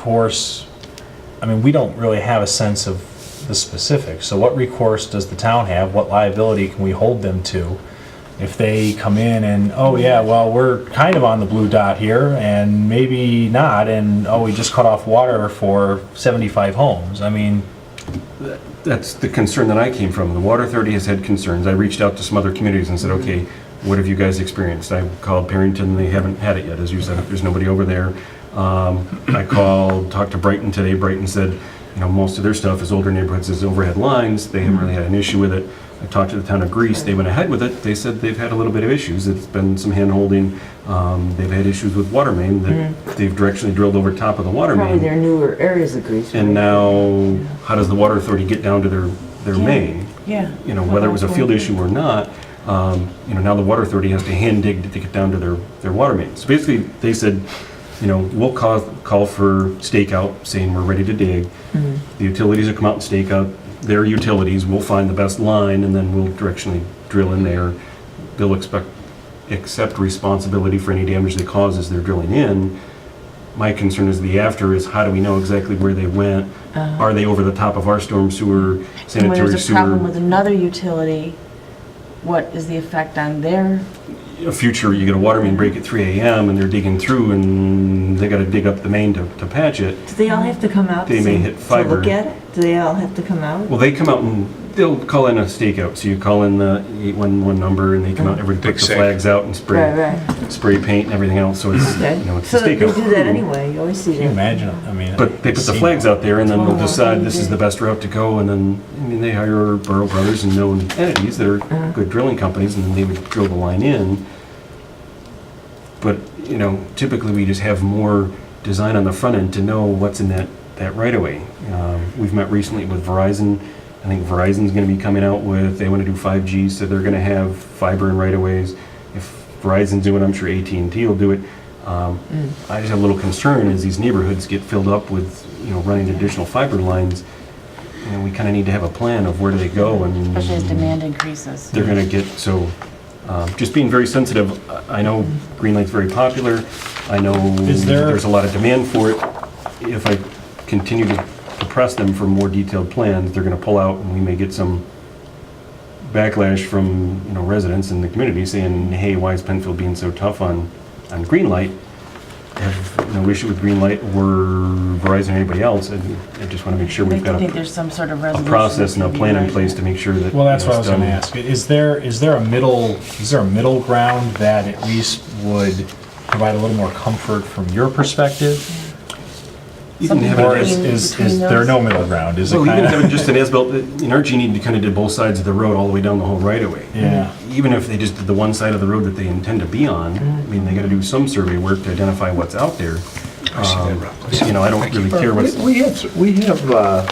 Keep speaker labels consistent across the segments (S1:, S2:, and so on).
S1: recourse, I mean, we don't really have a sense of the specifics. So what recourse does the town have? What liability can we hold them to? If they come in and, oh yeah, well, we're kind of on the blue dot here and maybe not, and oh, we just cut off water for 75 homes. I mean,
S2: That's the concern that I came from. The Water Authority has had concerns. I reached out to some other communities and said, okay, what have you guys experienced? I called Perrington, they haven't had it yet, as you said, there's nobody over there. Um, I called, talked to Brighton today, Brighton said, you know, most of their stuff is older neighborhoods, is overhead lines, they haven't really had an issue with it. I talked to the town of Greece, they went ahead with it, they said they've had a little bit of issues, it's been some handholding. Um, They've had issues with water main, that they've directionally drilled over top of the water main.
S3: Mm-hmm. Probably their newer areas of Greece.
S2: Mm. And now, how does the water authority get down to their, their main?
S4: Yeah.
S2: You know, whether it was a field issue or not, um, you know, now the water authority has to hand dig to get down to their, their water main. So basically, they said, you know, we'll call, call for stakeout, saying we're ready to dig.
S4: Mm-hmm.
S2: The utilities will come out and stake out their utilities, we'll find the best line, and then we'll directionally drill in there. They'll expect, accept responsibility for any damage they cause as they're drilling in. My concern is the after is how do we know exactly where they went? Are they over the top of our storm sewer,
S4: And when
S2: sanitary
S4: there's a problem with
S2: sewer?
S4: another utility, what is the effect on their,
S2: A future, you get a water main break at 3 AM and they're digging through and they gotta dig up the main to, to patch it.
S5: Do they all have to come out
S2: They may
S5: to-
S2: hit
S5: to
S2: fiber.
S5: look at it? Do they all have to come out?
S2: Well, they come out and they'll call in a stakeout, so you call in the 811 number and they come out, everybody
S6: Big
S2: puts the
S6: sink.
S2: flags out and
S3: Right,
S2: spray,
S3: right.
S2: spray paint and everything else, so it's,
S5: Okay.
S2: you know, it's a
S5: So they
S2: stakeout.
S5: do that anyway, you always see
S1: can you
S5: that.
S1: imagine, I mean.
S2: But they put the
S1: it's-
S2: flags out there, and then they'll
S5: Wow.
S2: decide this is the best route to go, and then, I mean, they hire Burrow Brothers and known entities that are good drilling companies, and then they would drill the line in. But, you know, typically, we just have more design on the front end to know what's in that, that right-of-way. Um, We've met recently with Verizon, I think Verizon's gonna be coming out with, they wanna do 5G, so they're gonna have fiber and right-of-ways. If Verizon's doing it, I'm sure at and T will do it. Um,
S4: Mm.
S2: I just have a little concern as these neighborhoods get filled up with, you know, running additional fiber lines. You know, we kinda need to have a plan of where do they go and
S4: especially as demand increases?
S2: they're gonna get, so, um, just being very sensitive, I I know Green Light's very popular, I know
S1: Is there-
S2: there's a lot of demand for it. If I continue to to press them for more detailed plans, they're gonna pull out, and we may get some backlash from, you know, residents in the community saying, hey, why is Penfield being so tough on, on Green Light? I have no issue with Green Light or Verizon or anybody else, I I just wanna make sure
S4: I
S2: we've got
S4: think
S2: a
S4: there's some sort of
S2: a
S4: resolution.
S2: process and a
S4: that can be
S2: plan in
S4: made.
S2: place to make sure that.
S1: Well, that's
S2: you know,
S1: what I was
S2: it's
S1: gonna
S2: done.
S1: ask. Is there, is there a middle, is there a middle ground that at least would provide a little more comfort from your perspective?
S2: You can have it
S1: Or
S2: as-
S1: is, is, is there no middle ground? Is it
S2: Well, even
S1: kind of?
S2: having just an as-built, in our genie, you kind of did both sides of the road all the way down the whole right-of-way.
S1: Yeah.
S2: Even if they just did the one side of the road that they intend to be on,
S6: Mm-hmm.
S2: I mean, they got to do some survey work to identify what's out there. Um, You know, I don't really care what's,
S6: We we have, we have uh,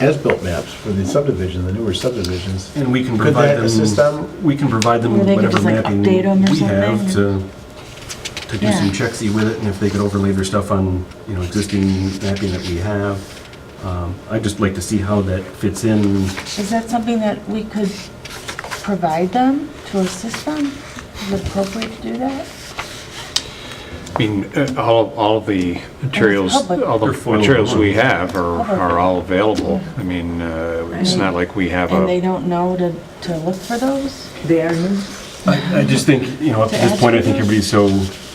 S6: as-built maps for the subdivision, the newer subdivisions.
S2: and we can
S6: Could
S2: provide
S6: that assist
S2: them,
S6: them?
S2: we can provide them
S4: Or they
S2: whatever
S4: could just, like,
S2: mapping
S4: update 'em or
S2: we have to,
S4: something.
S2: to do some
S4: Yeah.
S2: checksy with it, and if they could overlay their stuff on, you know, existing mapping that we have. Um, I'd just like to see how that fits in
S4: Is that something that we could provide them to assist them? Is it appropriate to do that?
S7: I mean, uh, all, all of the materials,
S4: public.
S7: all
S2: They're
S7: the
S2: foiled
S7: materials we
S2: ones.
S7: have are, are all available. I mean, uh, it's not like we have
S4: And they
S7: a,
S4: don't know to, to look for those?
S3: They are new.
S2: I just think, you know, up to this point, I think everybody's so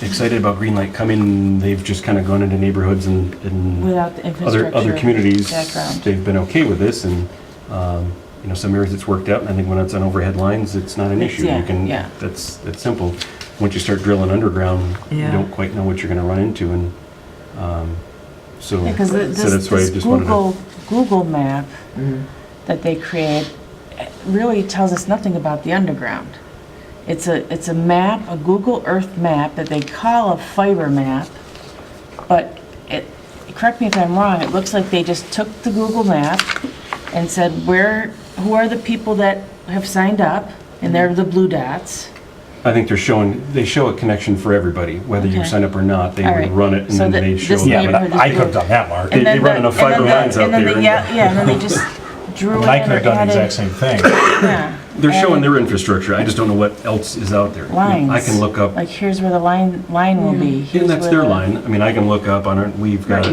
S2: excited about green light coming, they've just kind of gone into neighborhoods and, and
S4: Without the
S2: other,
S4: infrastructure.
S2: other communities,
S4: Background.
S2: they've been okay with this, and, um, you know, some areas it's worked out, and I think when it's on overhead lines, it's not an issue.
S4: yeah,
S2: You can,
S4: yeah.
S2: that's, that's simple. Once you start drilling underground, you
S5: Yeah.
S2: don't quite know what you're gonna run into, and, um, so.
S4: Yeah, because
S2: so
S4: this,
S2: that's why I
S4: this
S2: just wanted to-
S4: Google, Google map that they create eh, really tells us nothing about the underground. It's a, it's a map, a Google Earth map that they call a fiber map, but it, correct me if I'm wrong, it looks like they just took the Google map and said, where, who are the people that have signed up? And they're the blue dots.
S2: I think they're showing, they show a connection for everybody, whether you
S4: Okay.
S2: sign up or not, they
S4: All
S2: would
S4: right.
S2: run it, and
S4: So
S2: then
S4: that
S2: they
S4: this
S2: show. the-
S1: Yeah, but
S4: neighborhood
S1: I
S4: is
S1: could have done that, Mark.
S2: They-
S4: And
S2: they
S4: then
S2: run
S4: the-
S2: enough
S4: and then
S2: fiber
S4: the-
S2: lines out
S4: and then the-
S2: there.
S4: Yeah, yeah, and then they just drew in
S1: And
S4: or
S1: I could have done the
S4: added-
S1: exact same thing.
S4: yeah,
S2: They're showing
S4: added-
S2: their infrastructure, I just don't know what else is out there. I mean,
S4: lines.
S2: I can look up,
S4: Like, here's where the line, line will be.
S2: and
S4: here's
S2: that's
S4: where
S2: their
S4: the-
S2: line, I mean, I can look up on our, we've got